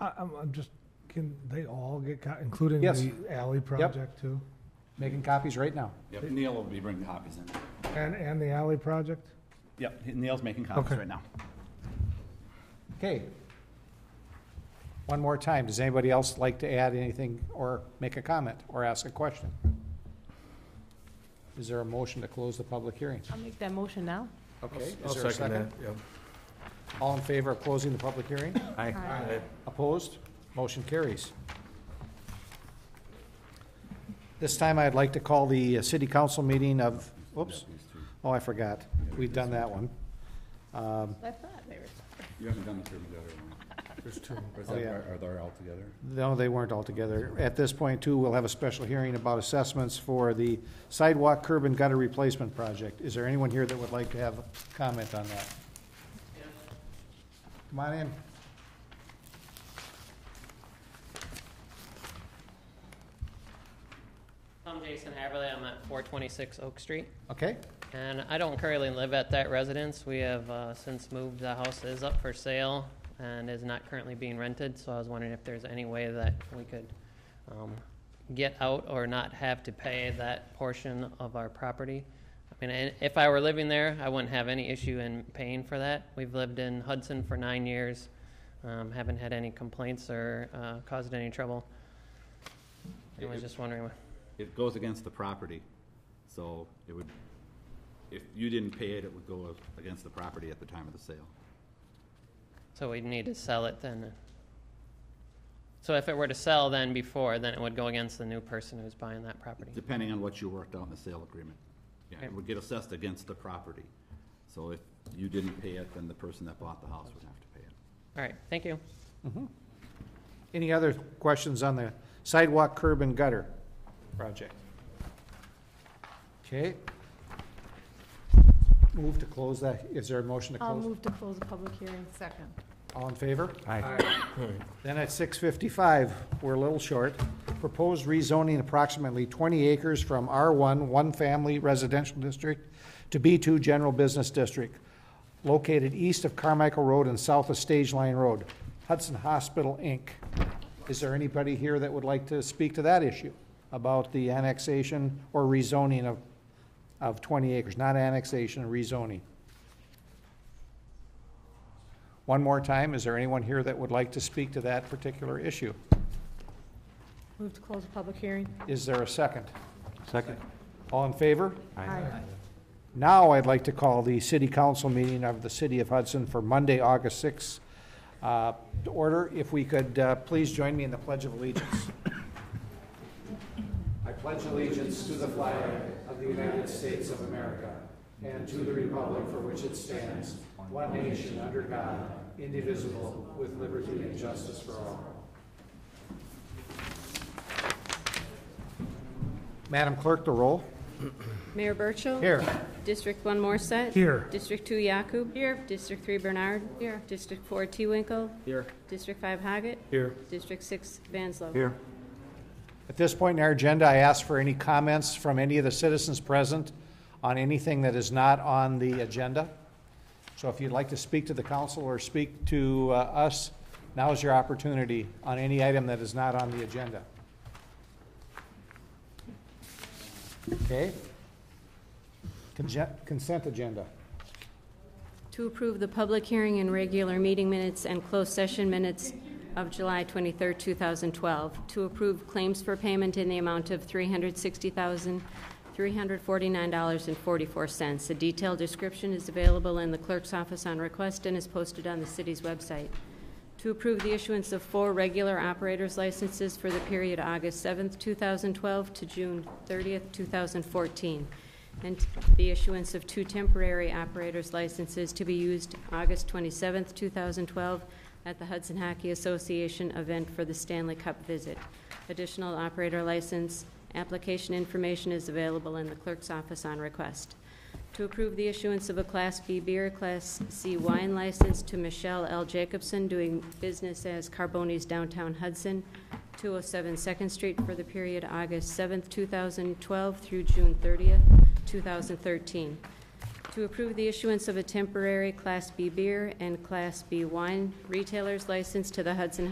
I, I'm, I'm just, can they all get, co- including Yes. the alley project too? Making copies right now. Yep, Neil will be bringing copies in. And, and the alley project? Yep, Neil's making copies Okay. right now. Okay. One more time, does anybody else like to add anything or make a comment or ask a question? Is there a motion to close the public hearing? I'll make that motion now. Okay, I'll is there a second that, second? yeah. All in favor of closing the public hearing? Aye. Opposed? Motion carries. This time I'd like to call the uh, city council meeting of, whoops, oh, I forgot. We've done that one. Um, I thought they were. You haven't done the survey yet, There's two. or is Oh, that- yeah. are- are they all together? No, they weren't all together. At this point, too, we'll have a special hearing about assessments for the sidewalk curb and gutter replacement project. Is there anyone here that would like to have a comment on that? Come on in. I'm Jason Haverly. I'm at 426 Oak Street, Okay, and I don't currently live at that residence. We have uh, since moved. The house is up for sale and is not currently being rented, so I was wondering if there's any way that we could um, get out or not have to pay that portion of our property. I mean, and if I were living there, I wouldn't have any issue in paying for that. We've lived in Hudson for nine years, um, haven't had any complaints or uh, caused any trouble. I was just wondering. It goes against the property, so it would, if you didn't pay it, it would go against the property at the time of the sale. So we'd need to sell it then. So if it were to sell then before, then it would go against the new person who's buying that property. Depending on what you worked out in the sale agreement. Yeah, it Okay. would get assessed against the property. So if you didn't pay it, then the person that bought the house would have to pay it. All right, thank you. any other questions on the sidewalk curb and gutter project? Okay. Move to close that, is there a motion to I'll close? move to close the public hearing. Second. All in favor? All right. Then at six fifty-five, we're a little short, proposed rezoning approximately twenty acres from R one, one-family residential district to B two, general business district, located east of Carmichael Road and south of Stage Line Road, Hudson Hospital, Inc. Is there anybody here that would like to speak to that issue about the annexation or rezoning of, of twenty acres, not annexation, rezoning? One more time, is there anyone here that would like to speak to that particular issue? Move to close the public hearing. Is there a second? Second. All in favor? Aye. Now I'd like to call the city council meeting of the city of Hudson for Monday, August 6th, uh, to order. If we could, uh, please join me in the Pledge of Allegiance. I pledge allegiance to the flag of the United States of America and to the republic for which it stands, one nation under God, indivisible, with liberty and justice for all. Madam Clerk, the roll. Mayor Burchill. Here. District one Morset. Here. District two Yakub. Here. District three Bernard. Here. District four Tewinkle. Here. District five Haggett. Here. District six Vanslo. Here. At this point in our agenda, I ask for any comments from any of the citizens present on anything that is not on the agenda. So if you'd like to speak to the council or speak to uh, us, now is your opportunity on any item that is not on the agenda. Okay? Conge- Consent agenda. To approve the public hearing and regular meeting minutes and closed session minutes of July 23, 2012. To approve claims for payment in the amount of $360,349.44. A detailed description is available in the clerk's office on request and is posted on the city's website. To approve the issuance of four regular operators licenses for the period August 7, 2012 to June 30, 2014 and the issuance of two temporary operators licenses to be used August 27, 2012, at the Hudson Hockey Association event for the Stanley Cup visit. Additional operator license application information is available in the clerk's office on request. To approve the issuance of a Class B beer, Class C wine license to Michelle L. Jacobson, doing business as Carboni's Downtown Hudson, 207 Second Street for the period August 7th, 2012 through June 30th, 2013. To approve the issuance of a temporary Class B beer and Class B wine retailer's license to the Hudson